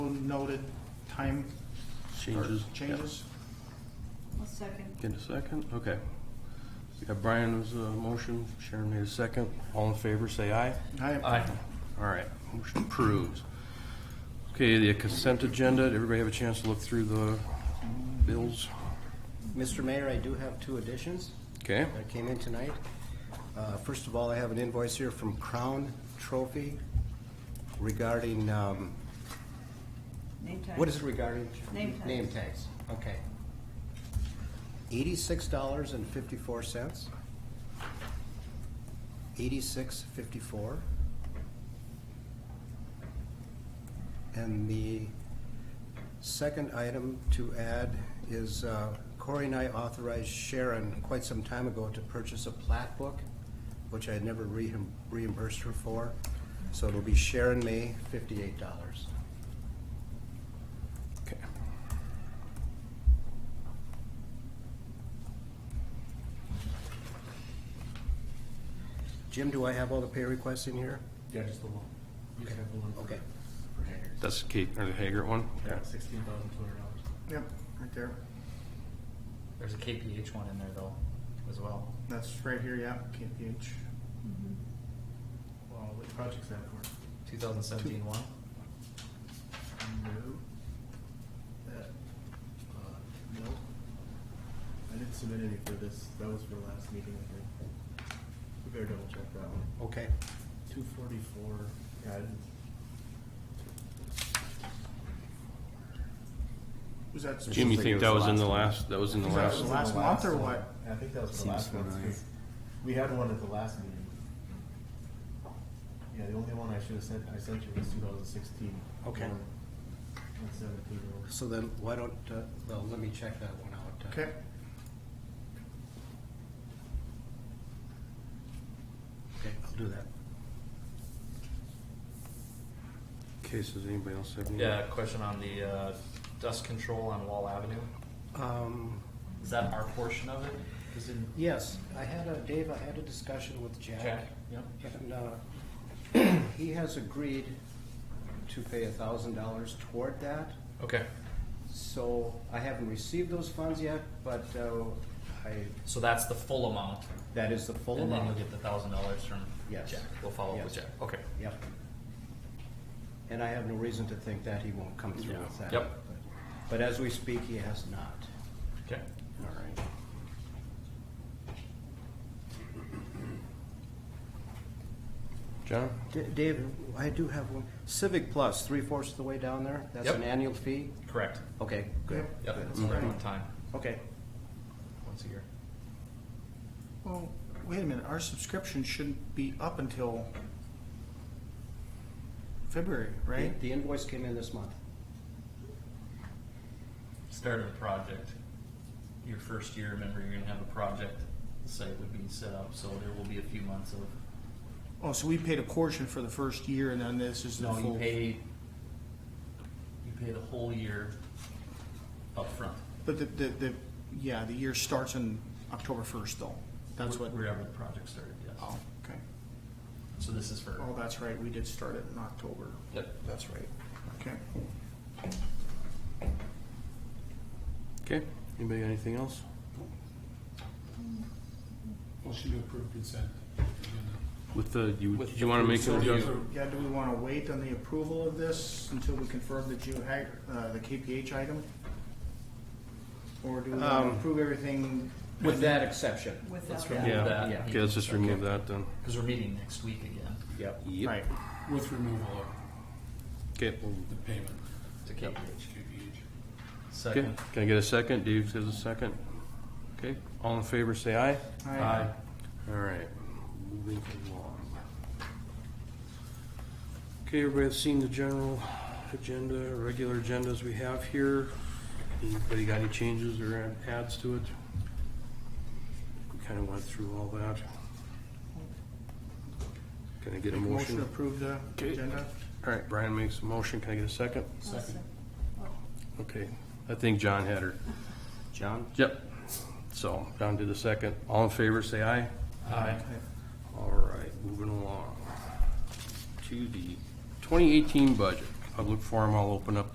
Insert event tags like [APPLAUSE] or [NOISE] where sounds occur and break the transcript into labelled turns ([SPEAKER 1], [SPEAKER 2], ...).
[SPEAKER 1] noted time. or
[SPEAKER 2] Changes.
[SPEAKER 1] Changes.
[SPEAKER 3] I'll second.
[SPEAKER 2] Get a second, okay. We got Brian's uh, motion, Sharon made a second. All in favor, say aye.
[SPEAKER 1] Aye.
[SPEAKER 2] All right, motion approves. Okay, the consent agenda, did everybody have a chance to look through the bills?
[SPEAKER 4] Mr. Mayor, I do have two additions
[SPEAKER 2] Okay,
[SPEAKER 4] that came in tonight. Uh, First of all, I have an invoice here from Crown Trophy regarding, um,
[SPEAKER 3] Name tag.
[SPEAKER 4] what is it regarding?
[SPEAKER 3] Name tags.
[SPEAKER 4] Name tags, okay. Eighty-six dollars and fifty-four cents. Eighty-six fifty-four. And the second item to add is uh, Corey and I authorized Sharon quite some time ago to purchase a plat book, which I had never reim- reimbursed her for. So it'll be Sharon May, fifty-eight dollars.
[SPEAKER 2] okay.
[SPEAKER 4] Jim, do I have all the pay requests in here?
[SPEAKER 5] Yeah, just the one. You just have the one. for-
[SPEAKER 4] Okay.
[SPEAKER 5] For Haggard.
[SPEAKER 2] That's Kate, or the Hager one?
[SPEAKER 5] Yeah, sixteen thousand two hundred dollars.
[SPEAKER 1] Yep, right there.
[SPEAKER 6] There's a KPH one in there though, as well.
[SPEAKER 1] That's right here, yeah, KPH. Well, which project's that for?
[SPEAKER 6] 2017 one.
[SPEAKER 1] No. That, uh, no.
[SPEAKER 5] I didn't submit any for this, that was for last meeting, I think. We better double check that one.
[SPEAKER 4] Okay.
[SPEAKER 5] Two forty-four, yeah, I didn't,
[SPEAKER 1] Was that?
[SPEAKER 2] Jim, you
[SPEAKER 1] specific-
[SPEAKER 2] think that was in the last, that was in the
[SPEAKER 1] Is that
[SPEAKER 2] last?
[SPEAKER 1] the last month or
[SPEAKER 5] one.
[SPEAKER 1] what?
[SPEAKER 5] I think that was the
[SPEAKER 4] Seems
[SPEAKER 5] last one,
[SPEAKER 4] familiar.
[SPEAKER 5] too. We had one at the last meeting. Yeah, the only one I should have sent, I sent you was two thousand sixteen.
[SPEAKER 4] Okay.
[SPEAKER 5] And seventeen. was-
[SPEAKER 4] So then, why don't, uh, well, let me check that one out.
[SPEAKER 1] Okay,
[SPEAKER 4] Okay, I'll do that.
[SPEAKER 2] Okay, so does anybody else have any?
[SPEAKER 6] Yeah, question on the uh, dust control on Wall Avenue.
[SPEAKER 4] Um,
[SPEAKER 6] Is that our portion of it? Is in
[SPEAKER 4] Yes, I had a, Dave, I had a discussion with Jack.
[SPEAKER 6] Jack? Yep.
[SPEAKER 4] And uh, [CLEARS THROAT] he has agreed to pay a thousand dollars toward that.
[SPEAKER 6] Okay.
[SPEAKER 4] So I haven't received those funds yet, but uh, I,
[SPEAKER 6] So that's the full amount,
[SPEAKER 4] that is the full
[SPEAKER 6] and then
[SPEAKER 4] amount.
[SPEAKER 6] you'll get the thousand dollars from
[SPEAKER 4] Yes.
[SPEAKER 6] Jack. We'll follow up with
[SPEAKER 4] Yes.
[SPEAKER 6] Jack. Okay.
[SPEAKER 4] Yep. And I have no reason to think that he won't come through with that.
[SPEAKER 6] Yep.
[SPEAKER 4] But as we speak, he has not.
[SPEAKER 6] Okay.
[SPEAKER 2] All right. John?
[SPEAKER 4] D- Dave, I do have one. Civic Plus, three fourths of the way down there, that's
[SPEAKER 6] Yep.
[SPEAKER 4] an annual fee?
[SPEAKER 6] Correct.
[SPEAKER 4] Okay, good.
[SPEAKER 6] Yep.
[SPEAKER 4] good.
[SPEAKER 6] It's
[SPEAKER 5] Mm-hmm.
[SPEAKER 6] right on time.
[SPEAKER 4] Okay.
[SPEAKER 6] Once a year.
[SPEAKER 1] well, wait a minute, our subscription shouldn't be up until February, right?
[SPEAKER 4] The- The invoice came in this month.
[SPEAKER 6] Start of a project. Your first year, remember, you're gonna have a project. The site would be set up, so there will be a few months of
[SPEAKER 1] Oh, so we paid a portion for the first year and then this is the
[SPEAKER 6] No,
[SPEAKER 1] full.
[SPEAKER 6] you pay, you pay the whole year upfront.
[SPEAKER 1] But the, the, the, yeah, the year starts on October first though. That's what.
[SPEAKER 6] Wherever the project started, yes.
[SPEAKER 1] Oh, okay.
[SPEAKER 6] So this is for,
[SPEAKER 1] Oh, that's right, we did start it in October.
[SPEAKER 6] yep,
[SPEAKER 1] That's right. Okay.
[SPEAKER 2] Okay, anybody got anything else?
[SPEAKER 7] Motion to approve consent.
[SPEAKER 2] With the, you, did you wanna make,
[SPEAKER 1] So,
[SPEAKER 2] a-
[SPEAKER 1] do- yeah, do we want to wait on the approval of this until we confirm the Ju, Hag- uh, the KPH item? Or do we want to
[SPEAKER 4] Um,
[SPEAKER 1] approve everything?
[SPEAKER 4] With that exception.
[SPEAKER 3] Without
[SPEAKER 6] remove
[SPEAKER 3] that.
[SPEAKER 2] yeah,
[SPEAKER 6] that.
[SPEAKER 2] okay, let's just remove that then.
[SPEAKER 6] because we're meeting next week again
[SPEAKER 4] Yep.
[SPEAKER 1] Right,
[SPEAKER 7] With removal of
[SPEAKER 2] Okay, we'll-
[SPEAKER 7] the payment.
[SPEAKER 6] to KPH.
[SPEAKER 7] HKBH.
[SPEAKER 2] okay,
[SPEAKER 6] Second,
[SPEAKER 2] can I get a second? Dave gives a second. Okay, all in favor, say aye.
[SPEAKER 1] Aye.
[SPEAKER 2] All right, moving along. Okay, everybody have seen the general agenda, regular agendas we have here. Anybody got any changes or adds to it? We kinda went through all that. Can I get a
[SPEAKER 1] Make a motion to
[SPEAKER 2] motion?
[SPEAKER 1] approve the
[SPEAKER 2] Okay.
[SPEAKER 1] agenda?
[SPEAKER 2] All right, Brian makes a motion. Can I get a second?
[SPEAKER 3] I'll second.
[SPEAKER 2] Okay, I think John had her.
[SPEAKER 4] John?
[SPEAKER 2] Yep. So, John did the second. All in favor, say aye.
[SPEAKER 6] aye.
[SPEAKER 2] All right, moving along to the 2018 budget. Public forum, I'll open up